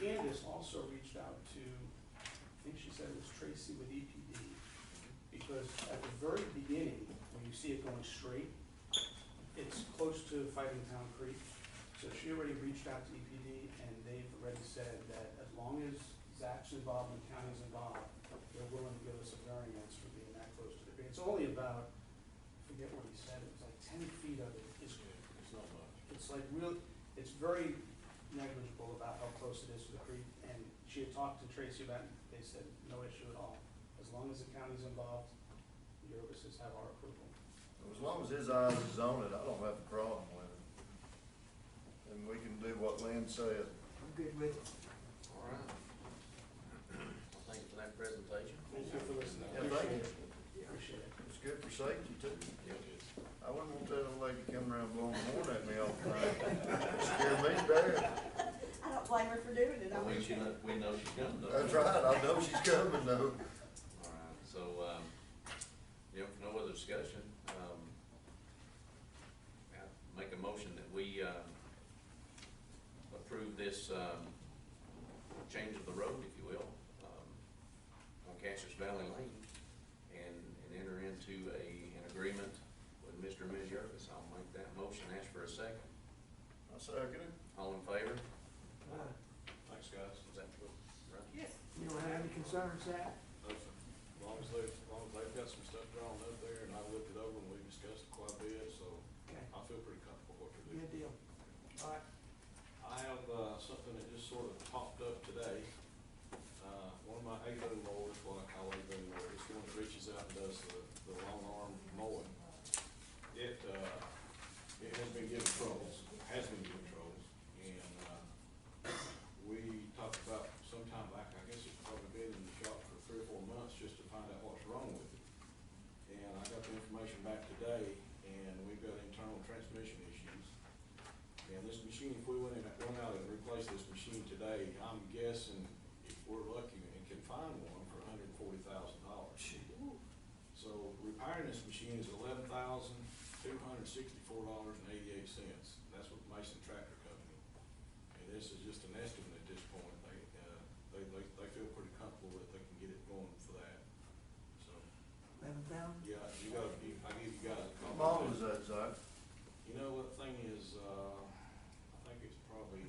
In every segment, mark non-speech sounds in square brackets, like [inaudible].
Candace also reached out to, I think she said it was Tracy with EPD, because at the very beginning, when you see it going straight, it's close to Fighting Town Creek. So she already reached out to EPD, and they've already said that as long as Zach's involved and the county's involved, they're willing to give us a variance for being that close to the creek. It's only about, I forget what he said, it was like ten feet of it is It's not much. it's like real, it's very negligible about how close it is to the creek, and she had talked to Tracy about it, they said, no issue at all. As long as the county's involved, your offices have our approval. As long as his eyes is on it, I don't have a problem with it. And we can do what Lynn said. I'm good with it. All right. [clears throat] Well, thank you for that presentation. Thank you for listening. Yeah, thank you. Appreciate it. It's good for safety too. Yeah, it is. I wouldn't want that old lady coming around blowing the horn at me all the time. Scare me bad. I don't blame her for doing it. I Well, we, mean, should know- we know she's coming though. That's right, I know she's coming though. All right, so, um, you know, for no other discussion, um, I make a motion that we, um, approve this, um, change of the road, if you will, um, on Cassius Valley Lane, and, and enter into a, an agreement with Mr. and Ms. Yerkes. I'll make that motion, ask for a second. I second it. All in favor? uh, Thanks, guys. Is that what, right? You don't have any concerns, Zach? As long as they, as long as they've got some stuff drawn up there, and I looked it over, and we discussed it quite a bit, so Okay, I feel pretty comfortable what they're doing. good deal. All right, I have, uh, something that just sort of popped up today. Uh, one of my AVO mowers, what I call AVO mower, it's one that reaches out and does the, the long arm mowing. It, uh, it has been giving troubles, has been giving troubles, and, uh, we talked about sometime back, I guess it's probably been in the shop for three or four months, just to find out what's wrong with it. And I got the information back today, and we've got internal transmission issues. And this machine, if we went in, went out and replaced this machine today, I'm guessing if we're lucky and can find one for hundred and forty thousand dollars. So repairing this machine is eleven thousand, two hundred and sixty-four dollars and eighty-eight cents. That's with Mason Tractor Company. And this is just an estimate at this point. They, uh, they, they, they feel pretty comfortable that they can get it going for that. So, eleven thousand? yeah, you gotta, you- I give you guys a How call. long is that, Zach? You know, what thing is, uh, I think it's probably,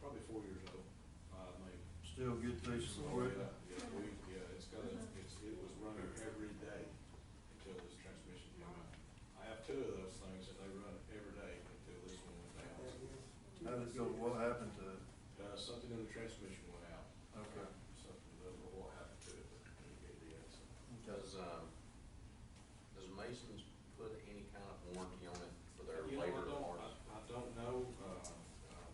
probably four years old, uh, maybe. Still good through some Oh, quick? Yeah, yeah, we, yeah, it's got a, it's, it was running every day until this transmission came out. I have two of those things that they run every day until this one went down. How did it go, what happened to it? Uh, something in the transmission went out, Okay. something, I don't know what happened to it, but it did, so. Okay. Does, um, does Masons put any kind of warranty on it for their You know, I labor don't, or? I, I don't know, uh, um,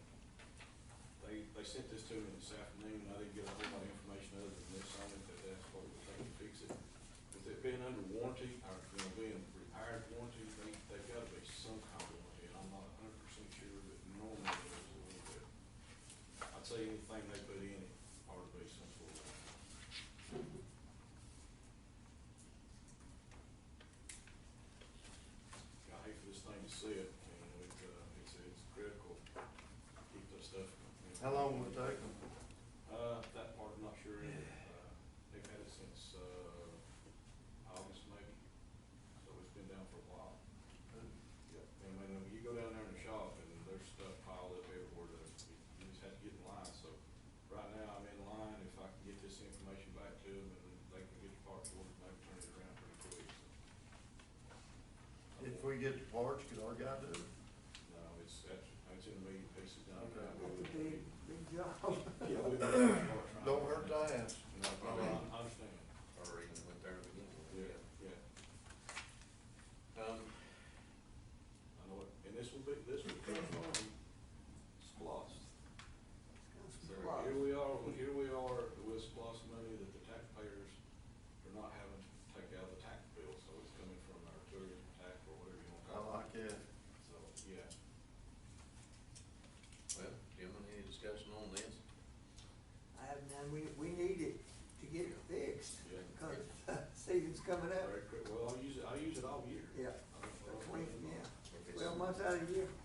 they, they sent this to me this afternoon, I didn't get a whole lot of information other than this on it, that that's what we're trying to fix it. With it being under warranty, or, you know, being repaired warranty, they, they've gotta be some kind of warranty, I'm not hundred percent sure, but normally there's a little bit. I'd say anything they put in it ought to be some sort of. I hate for this thing to sit, and it, uh, it's, it's critical, to keep this stuff. you know. How long would it take them? Uh, that part, I'm not sure, uh, they've had it since, uh, August maybe, so it's been down for a while. Yep. And when you go down there in the shop and there's stuff piled up everywhere, that you you just have to get in line, so right now I'm in line, if I can get this information back to them and they can get the parts ordered, they can turn it around pretty quick, so. If we get the parts, could our guy do it? No, it's, that's, it's in the medium pieces down Okay. there. That's a big, big job. Yeah, [coughs] we- we're- Don't hurt to ask. No, I I understand, Or even went there to begin with? yeah, yeah. Um, I know it, and this will be, this will come from SPOS. So here we are, well, here we are with SPOS money that the taxpayers are not having to take out of the tax bill, so it's coming from our tourism tax or whatever you want to I call it. like it. So, yeah, well, gentlemen, any discussion on this? I have none, we, we need it to get it fixed, Yeah. because [laughs] season's coming up. very quick, well, I use it, I use it all year. Yeah, I don't- I don't twenty, know. yeah, If it's- twelve months out of the year.